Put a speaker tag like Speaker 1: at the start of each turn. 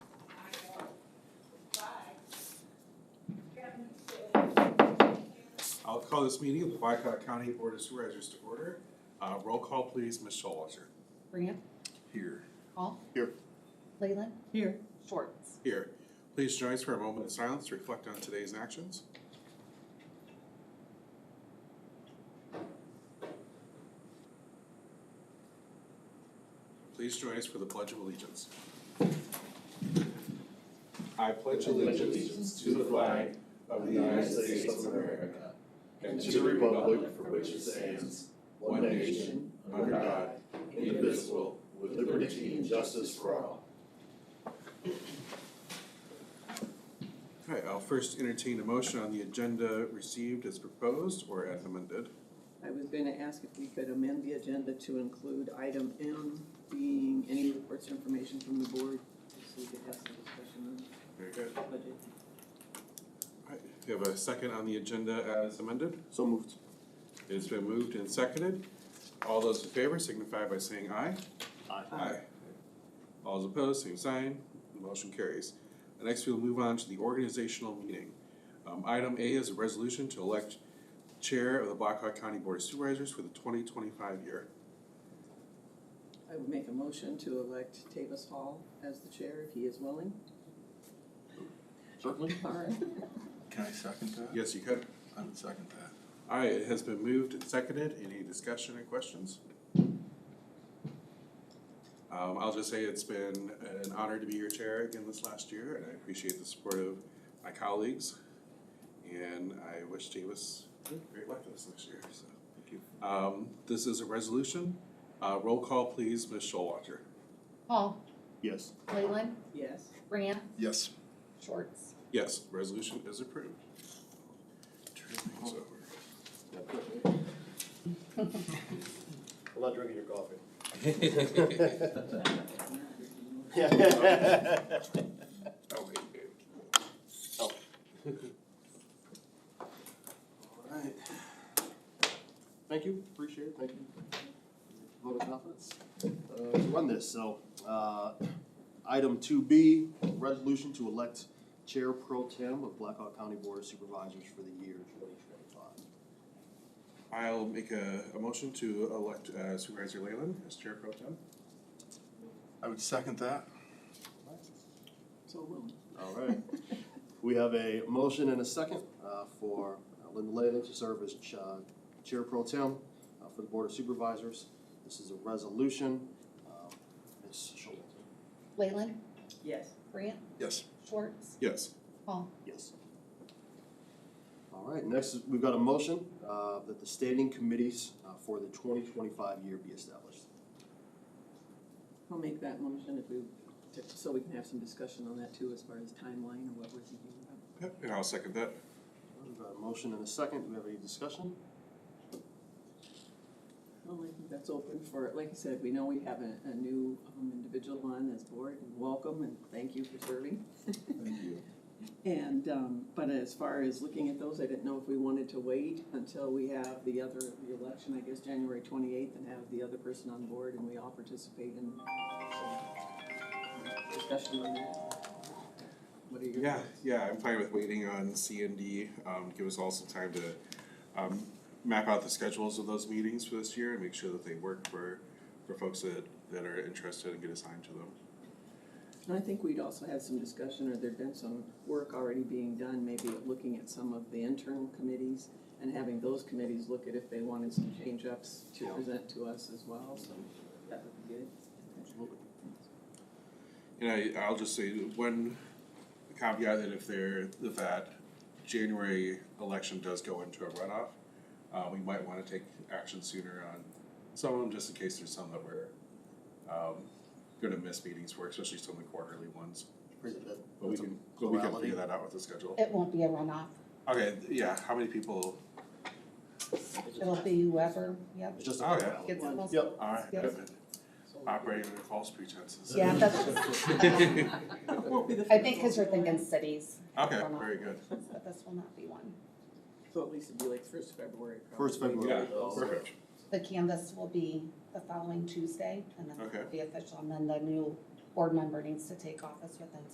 Speaker 1: call this meeting of the Blackhawk County Board of Supervisors to order. Uh, roll call please, Ms. Schulwasser.
Speaker 2: Brant,
Speaker 1: Here.
Speaker 2: Hall.
Speaker 1: Here.
Speaker 2: Leyland. Here. Schwartz.
Speaker 1: Here. Please join us for a moment of silence to reflect on today's actions. Please join us for the Pledge of Allegiance. I pledge
Speaker 3: allegiance to the flag of the United States of America and to the republic for which it stands, one nation, under God, indivisible, with liberty and justice for all.
Speaker 1: Okay, I'll first entertain a motion on the agenda received as proposed or as amended.
Speaker 4: I was going to ask if we could amend the agenda to include item M being any reports or information from the board, so we could have some discussion
Speaker 1: Very good.
Speaker 4: on the budget.
Speaker 1: All right, we have a second on the agenda as amended.
Speaker 3: So moved.
Speaker 1: It's been moved and seconded. All those in favor signify by saying aye. Aye. All those opposed, same sign. The motion carries. And Next, we'll move on to the organizational meeting. Um, item A is a resolution to elect Chair of the Blackhawk County Board of Supervisors for the twenty twenty-five year.
Speaker 4: I would make a motion to elect Tavis Hall as the chair, if he is willing.
Speaker 5: Certainly.
Speaker 4: All right.
Speaker 5: Can I second that?
Speaker 1: Yes, you could.
Speaker 5: I would second that.
Speaker 1: All right, it has been moved and seconded. Any discussion or questions? Um, I'll just say it's been an honor to be your chair again this last year, and I appreciate the support of my colleagues. And I wish Davis great luck this next year, so. Thank you. Um, this is a resolution. Uh, roll call, please, Ms. Showalter.
Speaker 2: Hall.
Speaker 3: Yes.
Speaker 2: Leyland.
Speaker 4: Yes,
Speaker 2: Brant.
Speaker 5: Yes.
Speaker 2: Schwartz.
Speaker 1: Yes, resolution is approved. Turn things over.
Speaker 3: I'm not drinking your coffee.
Speaker 1: Oh, wait, wait.
Speaker 3: Alright. Thank you, appreciate it, thank you. Vote of confidence, uh, to run this, so, uh, item two B, resolution to elect Chair Pro Tem of Blackhawk County Board of Supervisors for the year twenty twenty-five.
Speaker 1: I'll make a, a motion to elect uh, Supervisor Leyland as Chair Pro Tem.
Speaker 5: I would second that.
Speaker 4: so willing.
Speaker 3: Alright, we have a motion and a second, uh, for Linda Leyland to serve as Ch- uh, Chair Pro Tem uh, for the Board of Supervisors. This is a resolution, um, Ms. Schultz,
Speaker 2: Leyland.
Speaker 4: Yes.
Speaker 2: Brant.
Speaker 5: Yes.
Speaker 2: Schwartz.
Speaker 1: Yes.
Speaker 2: Hall.
Speaker 3: yes. All right, next, is- we've got a motion uh, that the standing committees uh, for the 2025 year be established.
Speaker 4: I'll make that motion if we, to- so we can have some discussion on that too, as far as timeline and what we're thinking about.
Speaker 1: Yep, and I'll second that.
Speaker 3: We've got a motion and a second, do we have any discussion?
Speaker 4: Well, I think that's open for, like I said, we know we have a, a new um, individual on this board, and welcome, and thank you for serving.
Speaker 1: Thank you.
Speaker 4: And, um, but as far as looking at those, I didn't know if we wanted to wait until we have the other, the election, I guess, January twenty-eighth, and have the other person on board, and we all participate in some discussion on that. What are your?
Speaker 1: Yeah, yeah, I'm fine with waiting on C and D. Um, give us all some time to, um, map out the schedules of those meetings for this year and make sure that they work for, for folks that, that are interested and get assigned to them.
Speaker 4: And I think we'd also had some discussion, or there'd been some work already being done, maybe at looking at some of the internal committees and having those committees look at if they wanted some change-ups to present to us as well, so that would be good.
Speaker 3: Absolutely.
Speaker 1: And I, I'll just say one caveat that if there, if that January election does go into a runoff, uh, we might wanna take action sooner on some of them, just in case there's some that we're, um, gonna miss meetings for, especially some of the quarterly ones.
Speaker 3: Is it that-
Speaker 1: But we
Speaker 3: that's a
Speaker 1: can, but we can
Speaker 3: plurality?
Speaker 1: figure that out with the schedule.
Speaker 2: It won't be a runoff.
Speaker 1: Okay, yeah, how many people,
Speaker 2: It'll be whoever, yep,
Speaker 3: It's just a
Speaker 1: Oh, yeah.
Speaker 3: plurality.
Speaker 2: gets the most.
Speaker 3: Yep.
Speaker 1: are
Speaker 2: Yes.
Speaker 1: operating under false pretenses?
Speaker 2: Yeah, that's, I think because you're thinking cities.
Speaker 1: Okay, very good.
Speaker 2: But this will not be one.
Speaker 4: So at least it'd be like first February. probably.
Speaker 3: First February.
Speaker 1: Yeah,
Speaker 3: Oh.
Speaker 1: perfect.
Speaker 2: The canvas will be the following Tuesday and then it'll
Speaker 1: Okay.
Speaker 2: be official. And then the new board member needs to take office within